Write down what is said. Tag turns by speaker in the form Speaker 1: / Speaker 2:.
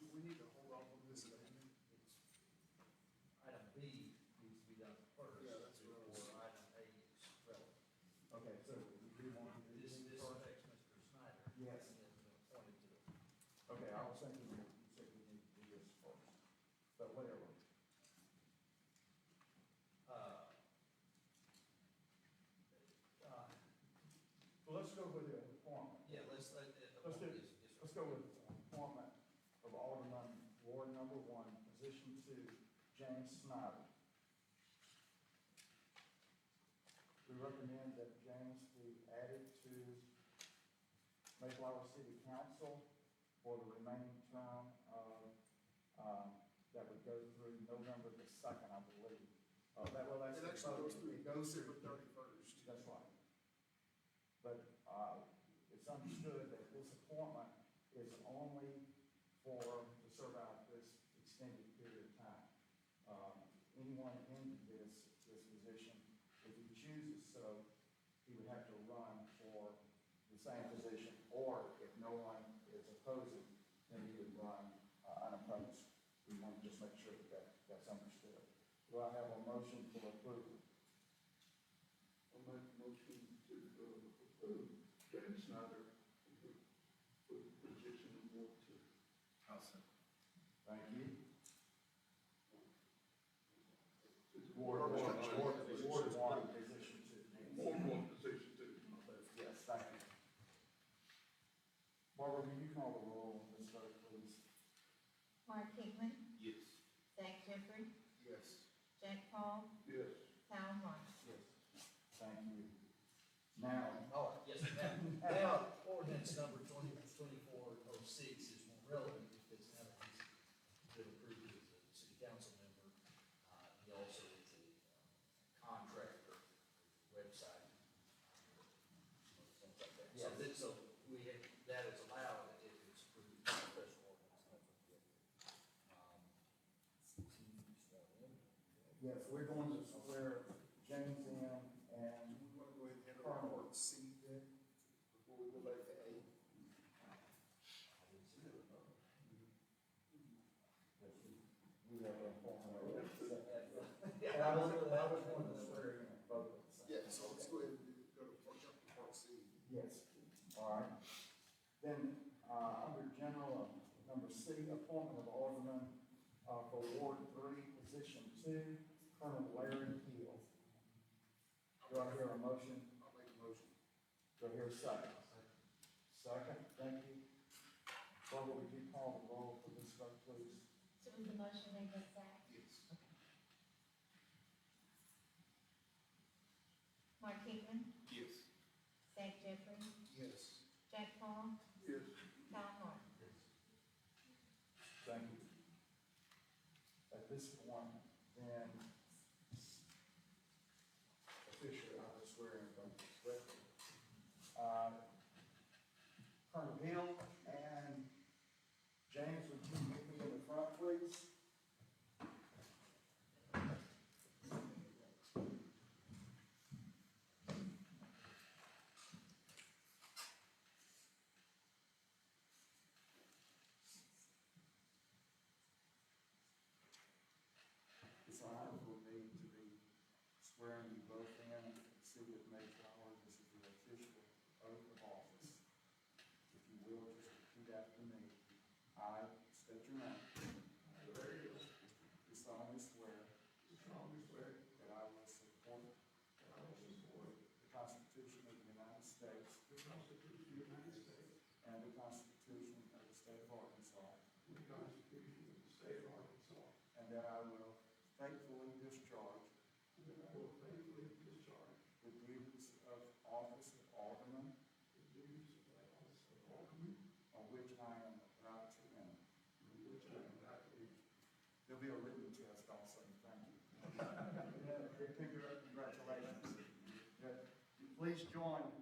Speaker 1: we need to hold off on this amendment.
Speaker 2: Item B needs to be done first.
Speaker 1: Yeah, that's what I was-
Speaker 2: Before item A is relevant.
Speaker 3: Okay, so we want to do
Speaker 2: This,
Speaker 3: this
Speaker 2: this
Speaker 3: first?
Speaker 2: affects Mr. Snyder.
Speaker 3: Yes.
Speaker 2: And then appointed to it.
Speaker 3: Okay, I was thinking, you you said we need to do this first, but whatever.
Speaker 2: Uh, uh,
Speaker 3: Well, let's go with the appointment.
Speaker 2: Yeah, let's, let, uh,
Speaker 3: Let's do,
Speaker 2: is, is.
Speaker 3: let's go with appointment of Alderman Ward Number One, position two, James Snyder. We recommend that James be added to Mayflower City Council for the remaining term of, um, that would go through November the second, I believe. Uh, that, well, that's.
Speaker 1: It actually goes
Speaker 3: it
Speaker 1: through
Speaker 3: goes
Speaker 1: December
Speaker 3: through-
Speaker 1: thirty-first.
Speaker 3: that's right. But uh, it's understood that this appointment is only for, to serve out this extended period of time. Um, Anyone in this, this position, if he chooses so, he would have to run for the same position, or if no one is opposing, then he would run uh, unopposed. We want to just make sure that that that's understood. Do I have a motion for approval?
Speaker 4: I'll make a motion to uh, approve James Snyder for the position of Ward Two.
Speaker 3: Thank you.
Speaker 4: It's
Speaker 3: Ward, Ward,
Speaker 1: Ward,
Speaker 3: Ward, Ward
Speaker 1: Ward,
Speaker 3: one, position two.
Speaker 4: Ward One, position two. my bad.
Speaker 3: Yes, thank you. Barbara, will you call the roll on this vote, please?
Speaker 5: Mark Kigman,
Speaker 4: Yes.
Speaker 5: Zach Jeffrey,
Speaker 1: Yes.
Speaker 5: Jack Paul,
Speaker 4: Yes.
Speaker 5: Kyle Martin.
Speaker 3: Yes. Thank you. Now,
Speaker 2: Oh, yes, now, now, ordinance number twenty, twenty-four oh six is more relevant because now that he's been approved as a city council member, uh, he also is a uh, contractor, website, things like that. So
Speaker 3: Yes.
Speaker 2: this, so we, have- that is allowed if it's approved by special ordinance. Um, number. Um, he's sworn in.
Speaker 3: yes, we're going to swear James in
Speaker 1: Do
Speaker 3: and
Speaker 1: we want to go ahead and handle our word C then, before we go back to A?
Speaker 2: I didn't see that.
Speaker 3: we have a formal. And
Speaker 2: Yeah,
Speaker 3: I was, I was going to swear in both at the same.
Speaker 1: Yeah, so let's go ahead and go to, part- jump to part C.
Speaker 3: Yes, all right. Then, uh, under general, uh, number C, appointment of alderman, uh, for Ward Three, position two, Colonel Larry Keel. Do I hear a motion?
Speaker 1: I'll make a motion.
Speaker 3: Do I hear a second? Second, thank you. Barbara, would you call the roll for this vote, please?
Speaker 5: So was the motion made by Zach?
Speaker 1: Yes.
Speaker 5: Mark Kigman,
Speaker 1: Yes.
Speaker 5: Zach Jeffrey,
Speaker 1: Yes.
Speaker 5: Jack Paul,
Speaker 4: Yes.
Speaker 5: Kyle Martin.
Speaker 3: Thank you. At this point, then, officially, I will swear in both this Uh Colonel Hill and James, would you meet me in the front, please? It's an honor for me to be swearing you both in at the city of Mayflower. This is the official oath of office. If you will, just repeat after me. I state your name.
Speaker 4: Larry Hill,
Speaker 3: Do solemnly swear
Speaker 4: do solemnly swear
Speaker 3: that I will support
Speaker 4: that I will support
Speaker 3: the Constitution of the United States
Speaker 4: the Constitution of the United States
Speaker 3: and the Constitution of the State of Arkansas,
Speaker 4: and the Constitution of the State of Arkansas,
Speaker 3: and that I will faithfully discharge
Speaker 4: and that I will faithfully discharge
Speaker 3: the duties of office of alderman
Speaker 4: the duties of the office of Alderman,
Speaker 3: on which I am about to enter.
Speaker 4: in which I am about to enter.
Speaker 3: There'll be a written test also, thank you. Congratulations. Good. Please join uh,